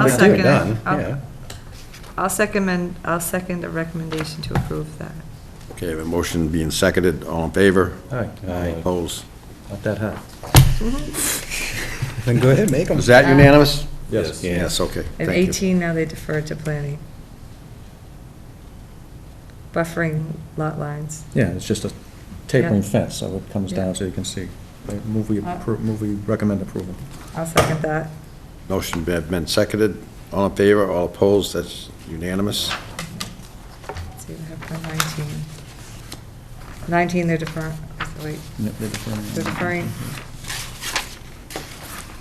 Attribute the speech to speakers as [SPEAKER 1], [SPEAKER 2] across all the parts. [SPEAKER 1] I'll
[SPEAKER 2] Like,
[SPEAKER 1] second it.
[SPEAKER 2] done,
[SPEAKER 1] I'll-
[SPEAKER 2] yeah.
[SPEAKER 1] I'll second, and- I'll second the recommendation to approve that.
[SPEAKER 3] Okay, I have a motion being seconded, all in favor?
[SPEAKER 2] All right,
[SPEAKER 3] Opposed?
[SPEAKER 4] Not that hot.
[SPEAKER 2] then go ahead, make them.
[SPEAKER 3] Is that unanimous?
[SPEAKER 4] Yes.
[SPEAKER 3] Yes, okay,
[SPEAKER 1] At
[SPEAKER 3] thank you.
[SPEAKER 1] 18, now they defer to planning. Buffering lot lines.
[SPEAKER 4] Yeah, it's just a tapering
[SPEAKER 1] Yeah.
[SPEAKER 4] fence, so it comes
[SPEAKER 1] Yeah. Uh.
[SPEAKER 4] down so you can see. I Move we, appro- move we recommend approval.
[SPEAKER 1] I'll second that.
[SPEAKER 3] Motion been been seconded, all in favor, all opposed, that's unanimous.
[SPEAKER 1] Let's see what happened on 19. 19, they're deferring, wait,
[SPEAKER 4] Yep, they're deferring.
[SPEAKER 1] they're deferring.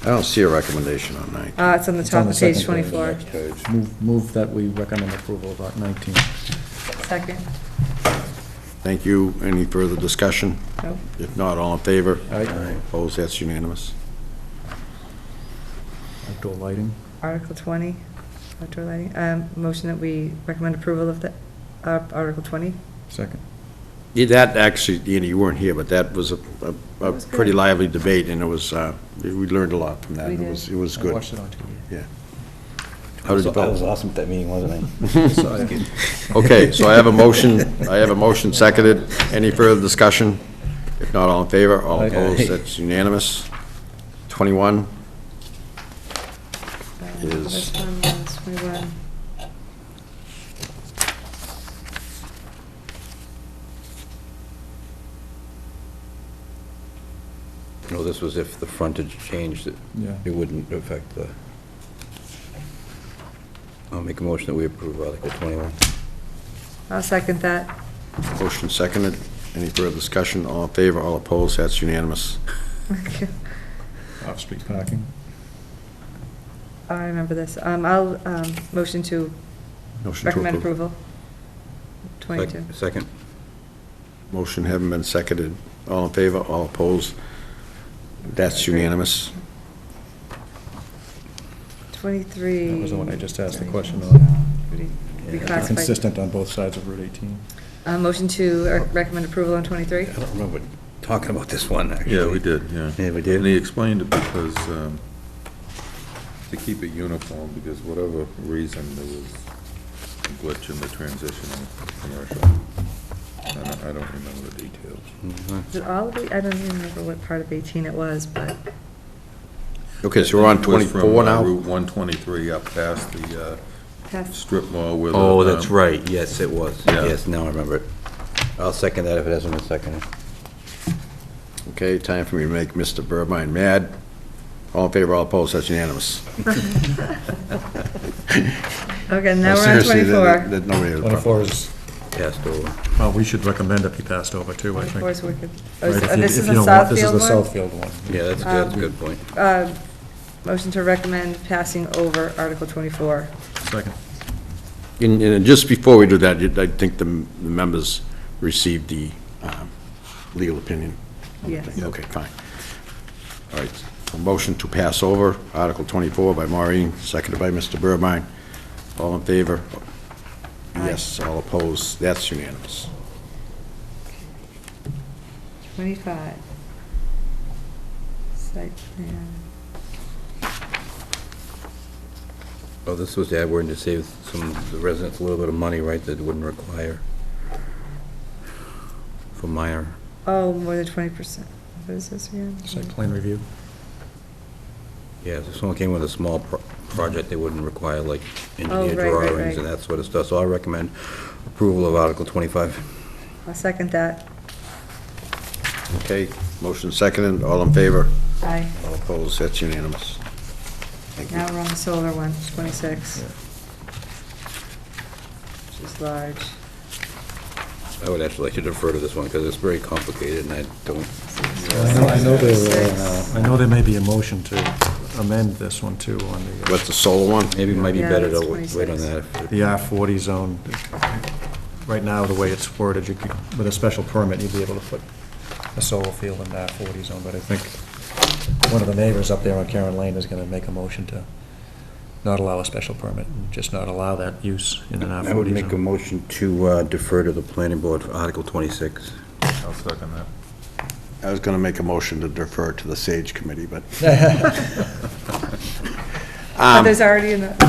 [SPEAKER 3] I don't see a recommendation on nine.
[SPEAKER 1] Uh, It's on the
[SPEAKER 4] It's on
[SPEAKER 1] top
[SPEAKER 4] the
[SPEAKER 1] of page
[SPEAKER 4] second page.
[SPEAKER 1] 24.
[SPEAKER 4] Move, move that we recommend approval of Act 19.
[SPEAKER 1] Second.
[SPEAKER 3] Thank you, any further discussion?
[SPEAKER 1] Nope.
[SPEAKER 3] If not, all in favor?
[SPEAKER 4] Aye.
[SPEAKER 3] Opposed, that's unanimous.
[SPEAKER 4] Outdoor lighting.
[SPEAKER 1] Article 20, outdoor lighting. Um, Motion that we recommend approval of the, uh, Article 20.
[SPEAKER 4] Second.
[SPEAKER 3] Yeah, That actually, Deanna, you weren't here, but that was a, a- a
[SPEAKER 1] It was good.
[SPEAKER 3] pretty lively debate, and it was, uh, we learned a lot from that.
[SPEAKER 1] We
[SPEAKER 3] and It
[SPEAKER 1] did.
[SPEAKER 3] was, it was
[SPEAKER 4] I
[SPEAKER 3] good.
[SPEAKER 4] watched it on TV.
[SPEAKER 3] Yeah. How did you
[SPEAKER 5] I was
[SPEAKER 3] vote?
[SPEAKER 5] awesome at that meeting, wasn't I?
[SPEAKER 4] Sorry.
[SPEAKER 3] Okay, so I have a motion, I have a motion seconded. Any further discussion? If not, all in favor, all
[SPEAKER 4] Aye.
[SPEAKER 3] opposed, that's unanimous. 21,
[SPEAKER 1] Um,
[SPEAKER 3] Is-
[SPEAKER 1] This one was, we were,
[SPEAKER 5] No, this was if the frontage changed, it
[SPEAKER 4] Yeah.
[SPEAKER 5] it wouldn't affect the... I'll make a motion that we approve Article 21.
[SPEAKER 1] I'll second that.
[SPEAKER 3] motion seconded. Any further discussion? All in favor, all opposed, that's unanimous.
[SPEAKER 4] Off-street parking.
[SPEAKER 1] I remember this. Um, I'll, um, motion to
[SPEAKER 3] Motion to
[SPEAKER 1] recommend
[SPEAKER 3] approve.
[SPEAKER 1] approval. 22.
[SPEAKER 5] Sec- Second.
[SPEAKER 3] Motion having been seconded. All in favor, all opposed, that's unanimous.
[SPEAKER 1] 23.
[SPEAKER 4] That was the one I just asked the question on.
[SPEAKER 1] on.
[SPEAKER 4] They're
[SPEAKER 1] Reclassified.
[SPEAKER 4] Consistent on both sides of Route 18.
[SPEAKER 1] Uh, Motion to uh, recommend approval on 23.
[SPEAKER 5] I don't remember talking about this one, actually.
[SPEAKER 6] Yeah, we did, yeah.
[SPEAKER 5] Yeah, we did.
[SPEAKER 6] And he explained it because, um, to keep it uniform, because whatever reason, there was a glitch in the transition of commercial. I don't, I don't remember the details.
[SPEAKER 5] Mhm.
[SPEAKER 1] Is it all of the, I don't even remember what part of 18 it was, but
[SPEAKER 3] Okay, so we're on
[SPEAKER 6] It was from,
[SPEAKER 3] 24
[SPEAKER 6] uh,
[SPEAKER 3] now?
[SPEAKER 6] Route 123 up past the uh,
[SPEAKER 1] past,
[SPEAKER 6] strip mall where the...
[SPEAKER 5] Oh, that's
[SPEAKER 6] um,
[SPEAKER 5] right, yes, it was.
[SPEAKER 6] Yeah.
[SPEAKER 5] Yes, now I remember it. I'll second that if it hasn't been seconded.
[SPEAKER 3] Okay, time for me to make Mr. Burbine mad. All in favor, all opposed, that's unanimous.
[SPEAKER 1] okay, now we're on
[SPEAKER 3] Seriously, there-
[SPEAKER 1] 24.
[SPEAKER 3] there- nobody has a problem.
[SPEAKER 4] 24 is,
[SPEAKER 5] Passed over.
[SPEAKER 4] well, we should recommend it be passed over too, I
[SPEAKER 1] 24 is
[SPEAKER 4] think.
[SPEAKER 1] wicked.
[SPEAKER 4] Right,
[SPEAKER 1] Oh,
[SPEAKER 4] if
[SPEAKER 1] so-
[SPEAKER 4] you-
[SPEAKER 1] oh, This
[SPEAKER 4] if
[SPEAKER 1] is
[SPEAKER 4] you
[SPEAKER 1] the
[SPEAKER 4] don't want- This is the
[SPEAKER 1] Southfield one?
[SPEAKER 4] Southfield one.
[SPEAKER 5] Yeah, that's good, that's a good point.
[SPEAKER 1] Uh, Motion to recommend passing over Article 24.
[SPEAKER 4] Second.
[SPEAKER 3] And, and just before we do that, you- I think the m- the members received the um, legal opinion.
[SPEAKER 1] Yes.
[SPEAKER 3] Okay, fine. All right, a motion to pass over Article 24 by Maureen, seconded by Mr. Burbine. All in favor? Yes, all opposed, that's unanimous.
[SPEAKER 1] 25. Site plan.
[SPEAKER 5] Oh, this was the ad word to save some, the residents a little bit of money, right, that wouldn't require for minor.
[SPEAKER 1] Oh, more than 20%. What is this again?
[SPEAKER 4] Site plan review.
[SPEAKER 5] Yeah, if someone came with a small pro- project, they wouldn't require like engineer
[SPEAKER 1] Oh, right, right,
[SPEAKER 5] drawings and
[SPEAKER 1] right.
[SPEAKER 5] that sort of stuff. So I recommend approval of Article 25.
[SPEAKER 1] I'll second that.
[SPEAKER 3] Okay, motion seconded, all in favor?
[SPEAKER 1] Aye.
[SPEAKER 3] All opposed, that's unanimous. Thank
[SPEAKER 1] Now
[SPEAKER 3] you.
[SPEAKER 1] we're on the solar one, 26. Which is large.
[SPEAKER 5] I would actually like to defer to this one because it's very complicated and I don't,
[SPEAKER 4] I know, I know there,
[SPEAKER 1] Six.
[SPEAKER 4] uh, I know there may be a motion to amend this one too on the, uh,
[SPEAKER 3] What's the solar one?
[SPEAKER 5] maybe it might be
[SPEAKER 1] Yeah,
[SPEAKER 5] better to
[SPEAKER 1] that's
[SPEAKER 5] wait wait on
[SPEAKER 1] 26.
[SPEAKER 5] that.
[SPEAKER 4] the R forty zone. Right now, the way it's worded, you could, with a special permit, you'd be able to put a solar field in the R forty zone, but I think one of the neighbors up there on Karen Lane is gonna make a motion to not allow a special permit, and just not allow that use in an R
[SPEAKER 5] I would
[SPEAKER 4] forty
[SPEAKER 5] make a
[SPEAKER 4] zone.
[SPEAKER 5] motion to uh, defer to the planning board for Article 26.
[SPEAKER 6] I'll second that.
[SPEAKER 3] I was going to make a motion to defer to the Sage Committee, but Um,
[SPEAKER 1] But Oh, there's already in the.